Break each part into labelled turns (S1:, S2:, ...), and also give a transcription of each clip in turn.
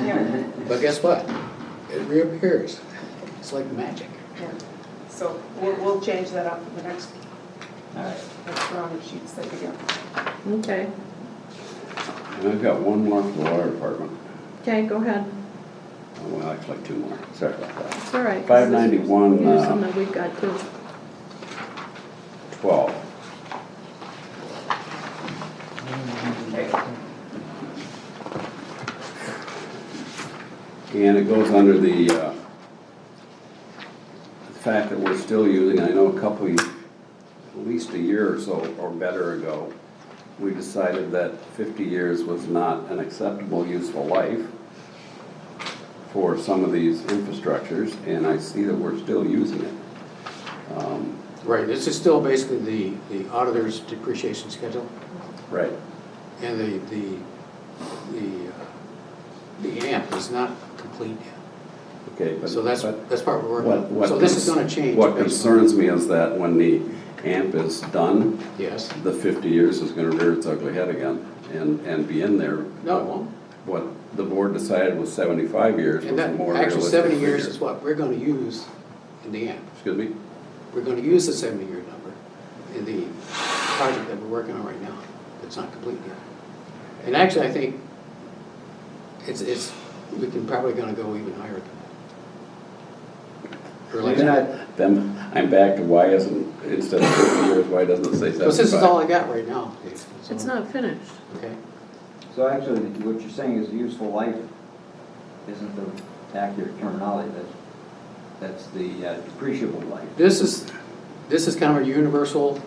S1: Yeah.
S2: But guess what? It reappears. It's like magic.
S1: Yeah. So we'll, we'll change that up for the next, next round of sheets that we get.
S3: Okay,
S4: And I've got one more for the water department.
S3: okay, go ahead,
S4: Oh, Well, actually, two more. Sorry about that.
S3: it's all right.
S4: 591,
S3: Here's
S4: uh,
S3: some that we've got too.
S4: Twelve. And it goes under the, uh, the fact that we're still using, I know a couple, of- at least a year or so, or better ago, we decided that fifty years was not an acceptable useful life for some of these infrastructures, and I see that we're still using it. Um,
S2: Right, this is still basically the, the auditor's depreciation schedule
S4: Right,
S2: and the, the, the, uh, the AMP is not complete yet.
S4: okay, but.
S2: So that's,
S4: but-
S2: that's part we're
S4: What,
S2: working on.
S4: what.
S2: So this is
S4: cons-
S2: gonna change.
S4: What
S2: based
S4: concerns me is that when the AMP is done,
S2: on- Yes.
S4: the fifty years is gonna rear its ugly head again and, and be in there.
S2: No, it won't.
S4: What the board decided was seventy-five years
S2: And
S4: was a
S2: that,
S4: more
S2: actually,
S4: realistic
S2: seventy years
S4: figure.
S2: is what we're gonna use in the AMP.
S4: Excuse me?
S2: We're gonna use the seventy-year number in the project that we're working on right now, that's not complete yet. And actually, I think it's, it's, we can probably gonna go even higher than that. Or like-
S4: Then I- Then I'm back to why isn't, instead of fifty years, why doesn't it say seventy-five?
S2: Because this is all I got right now, Dave. That's
S3: It's
S2: all.
S3: not finished.
S2: Okay,
S5: So actually, what you're saying is useful life isn't the accurate terminology, that's, that's the uh, depreciable life.
S2: this is, this is kind of a universal,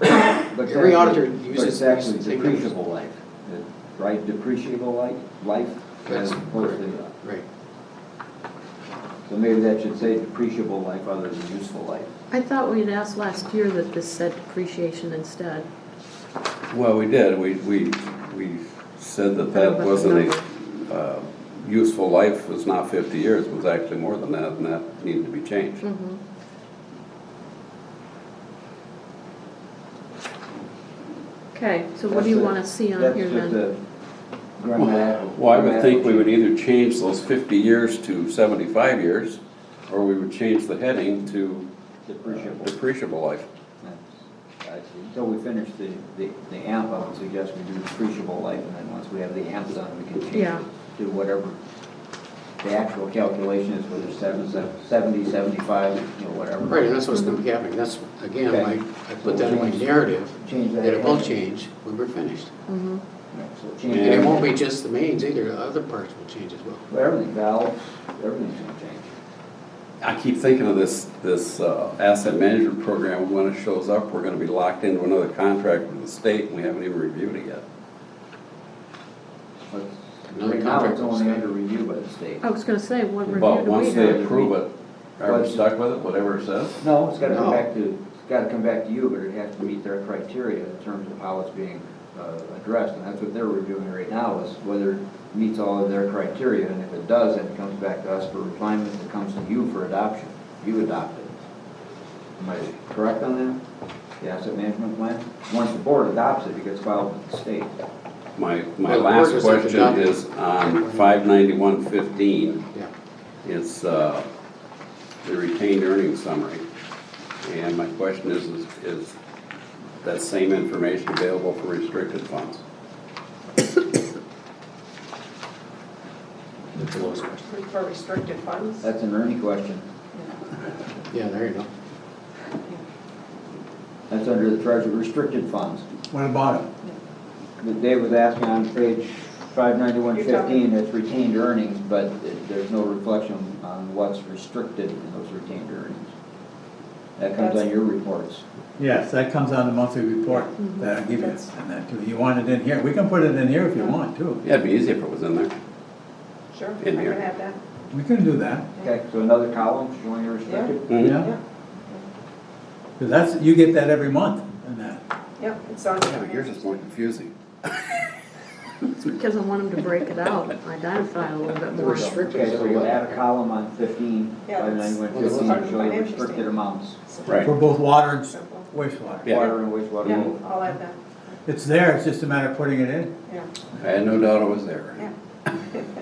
S5: But it's
S2: Every
S5: actually-
S2: auditor
S5: but
S2: uses
S5: It's actually
S2: these same numbers.
S5: depreciable life, It- right, depreciable life, life
S2: That's
S5: as opposed to, uh,
S2: right,
S5: so maybe that should say depreciable life other than useful life.
S3: I thought we had asked last year that this said depreciation instead.
S4: Well, we did, we, we, we said that that
S3: But
S4: wasn't
S3: the
S4: a, uh, useful life was not fifty years, was actually more than that, and that needed to be
S2: Hmm.
S4: changed.
S3: Mm-hmm. Okay, so what do you
S5: That's a-
S3: wanna see on
S5: that's
S3: here
S5: just
S3: then?
S5: a grammatical-
S4: Well, I would think we would
S5: grammatical
S4: either change those fifty years to seventy-five years, or we would change the heading to
S5: Depreciable.
S4: depreciable life.
S5: That's- I see. Until we finish the, the the AMP, I would suggest we do depreciable life, and then once we have the AMP done, we can change
S3: Yeah.
S5: it to whatever the actual calculation is, whether seven, seven- seventy, seventy-five, you know, whatever.
S2: right, and that's what's gonna be
S3: Mm-hmm.
S2: happening, that's, again,
S5: Okay.
S2: I, I put that in my narrative,
S5: Change
S2: that
S5: that.
S2: it will change when we're finished.
S3: Mm-hmm.
S5: Right, so
S2: And it
S5: change
S4: Yeah.
S5: everything.
S2: won't be just the mains either, other parts will change as well.
S5: Well, Everything, valves, everything's gonna change.
S4: I keep thinking of this, this uh, asset management program, when it shows up, we're gonna be locked into another contract with the state, and we haven't even reviewed it yet.
S5: But
S2: Another
S5: Right now,
S2: contract
S5: it's
S2: with
S5: only
S2: the
S5: under review by the state.
S3: I was gonna say, what review
S4: But
S3: do we
S4: once
S3: have?
S4: they approve it, are we
S5: But-
S4: stuck with it, whatever it says?
S5: No, it's gotta
S2: No.
S5: come back to, it's gotta come back to you, but it has to meet their criteria in terms of how it's being uh, addressed. And that's what they're reviewing right now, is whether it meets all of their criteria. And if it does, then it comes back to us for refinement, it comes to you for adoption. You adopt it. Am I correct on that? The asset management plan? Once the board adopts it, it gets filed with the state.
S4: My, my
S2: Well, the
S4: last
S2: orders have to
S4: question
S2: be-
S4: is on five ninety-one fifteen.
S2: Yeah,
S4: It's uh, the retained earnings summary. And my question is, is- is that same information available for restricted funds?
S2: that's the lowest question.
S1: For restricted funds?
S5: That's an Ernie question.
S2: Yeah, there you go.
S5: That's under the treasury restricted funds.
S6: What about it?
S5: But Dave was asking on page five ninety-one
S1: You're talking-
S5: fifteen, that's retained earnings, but it- there's no reflection on what's restricted in those retained earnings. That comes
S1: That's-
S5: on your reports.
S6: Yes, that comes on the monthly report that I give you,
S1: That's-
S6: and that too, you want it in here, we can put it in here if you want too,
S4: Yeah, it'd be easy if it was in there.
S1: Sure, I
S4: In
S1: can
S4: here.
S1: have that.
S6: we can do that,
S5: Okay, so another column showing your restricted.
S4: Mhm.
S6: yeah? Cause that's, you get that every month, and that,
S1: Yep, it's on.
S4: Yeah, but yours is more confusing.
S3: It's because I want them to break it out, identify a little bit
S2: The
S3: more.
S2: restrict- Restricted
S5: Okay,
S2: is
S5: so we
S2: what?
S5: add a column on fifteen,
S1: Yeah,
S5: five
S1: that's-
S5: ninety-one
S2: well, that's
S5: fifteen,
S2: part
S1: of the
S5: showing
S1: financial
S5: restricted
S1: statement.
S5: amounts.
S4: Right.
S6: for both water and
S1: Simple.
S6: wastewater.
S4: Yeah.
S5: Water and wastewater.
S1: Yeah,
S5: both.
S1: I'll add that,
S6: It's there, it's just a matter of putting it in.
S1: yeah,
S4: I had no doubt it was there.
S1: yeah.